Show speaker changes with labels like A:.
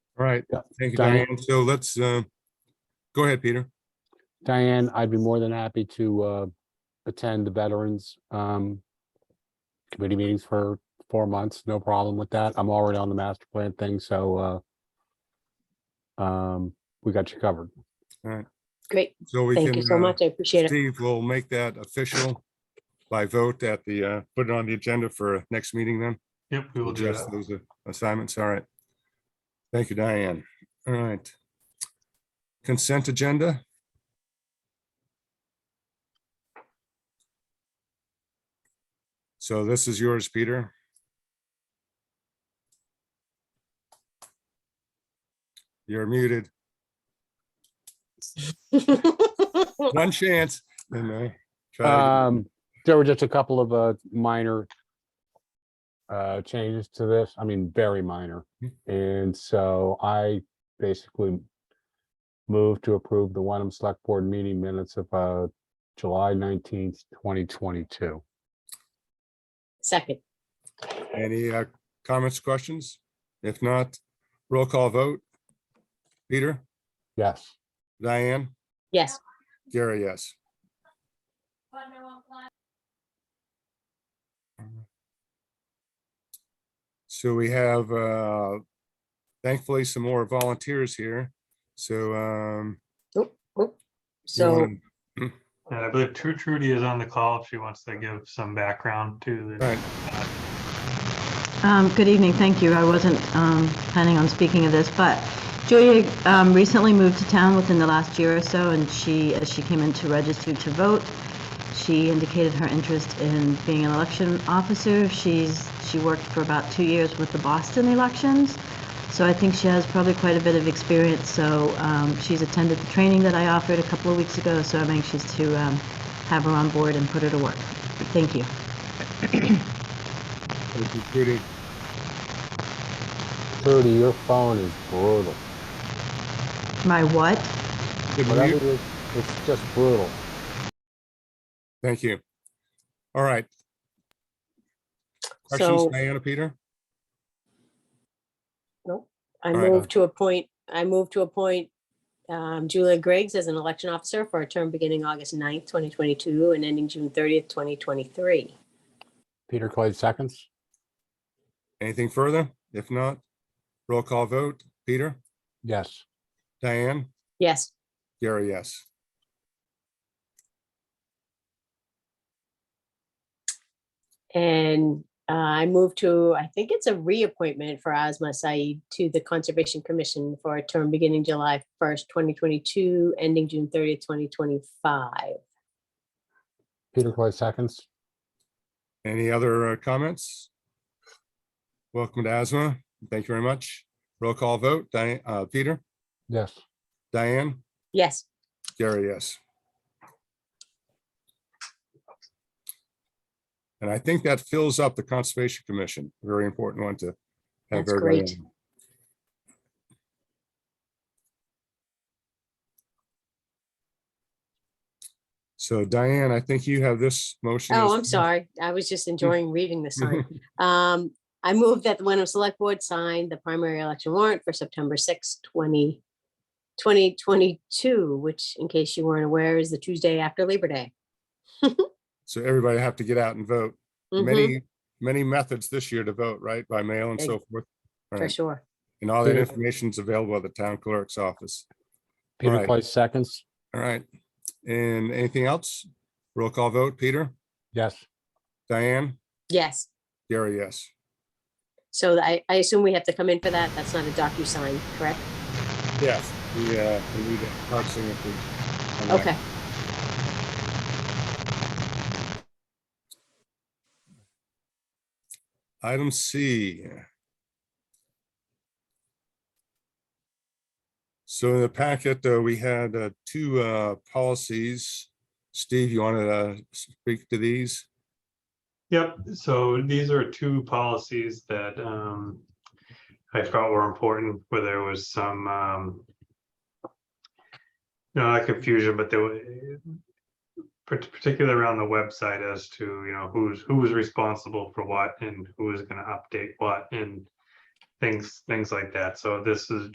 A: All right.
B: Yeah.
A: Thank you,
B: Diane?
A: Diane. So let's, uh, go ahead, Peter.
B: Diane, I'd be more than happy to uh, attend the Veterans um, Committee meetings for four months, no problem with that. I'm already on the master plan thing, so uh, um, we got you covered.
C: Great.
A: So we
C: Thank you
A: can,
C: so
A: uh,
C: much. I appreciate it.
A: Steve will make that official by vote at the, uh, put it on the agenda for next meeting then.
D: Yep, we will do
A: Address
D: that.
A: those uh, assignments. All right. Thank you, Diane. All right. Consent agenda. So this is yours, Peter. You're muted. One chance. you know, try
B: Um, there were just a couple of uh, minor uh, changes to this. I mean, very minor. And so I basically moved to approve the Wenham Select Board meeting minutes of uh, July nineteenth, twenty twenty-two.
C: Second,
A: again. Any uh, comments, questions? If not, roll call vote. Peter,
B: Yes.
A: Diane,
C: yes,
A: Gary, yes. So we have uh thankfully some more volunteers here. So um. you
C: so,
A: wanna-
D: And I believe Tru Trudy is on the call if she wants to give some background to
A: All
D: the.
A: right,
E: Um, Good evening, thank you. I wasn't um, planning on speaking of this, but Julia um, recently moved to town within the last year or so, and she, as she came in to register to vote, she indicated her interest in being an election officer. She's, she worked for about two years with the Boston elections, so I think she has probably quite a bit of experience. So um, she's attended the training that I offered a couple of weeks ago, so I'm anxious to um, have her on board and put her to work. Thank you.
A: thank you, Judy.
B: Trudy, your phone is brutal.
E: My what?
A: Good
B: Whatever
A: mute.
B: it is, it's just brutal.
A: Thank you. All right. Questions,
C: so
A: Diana, Peter?
C: I
A: all right.
C: move to appoint, I move to appoint um, Julia Griggs as an election officer for a term beginning August 9th, 2022 and ending June 30th, 2023.
B: Peter Clay seconds?
A: Anything further? If not, roll call vote. Peter,
B: Yes.
A: Diane,
C: Yes,
A: Gary, yes.
C: and uh, I move to, I think it's a reappointment for Asma Saeed to the Conservation Commission for a term beginning July 1st, 2022, ending June 30th, 2025.
B: Peter Clay seconds?
A: Any other uh, comments? Welcome to Asthma. Thank you very much. Roll call vote. Diane, uh, Peter,
B: Yes.
A: Diane?
C: Yes,
A: Gary, yes. And I think that fills up the Conservation Commission, very important one to have
C: That's
A: everybody.
C: great.
A: on. So Diane, I think you have this motion.
C: Oh,
A: as-
C: I'm sorry. I was
A: Mm.
C: just enjoying reading the sign. Um, I move that the Wenham Select Board sign the primary election warrant for September 6, 20, 2022, which in case you weren't aware, is the Tuesday after Labor Day.
A: So everybody have to get out and vote.
C: Mhm,
A: Many, many methods this year to vote, right? By mail and so forth. All
C: For
A: right.
C: sure. Mm-hmm.
A: And all that
B: Yeah.
A: information's available at the town clerk's office.
B: Peter
A: Right.
B: Clay seconds?
A: All right. And anything else? Roll call vote. Peter,
B: Yes.
A: Diane,
C: Yes.
A: Gary, yes.
C: So I, I assume we have to come in for that. That's not a DocuSign, correct?
A: Yes. Yeah, we need a hard signature on that.
C: Okay.
A: Item C. So in the packet, uh, we had uh, two uh, policies. Steve, you want to speak to these?
D: Yep, so these are two policies that um I felt were important, where there was some um not confusion, but there was particularly around the website as to, you know, who's who was responsible for what and who was gonna update what and things, things like that. So this is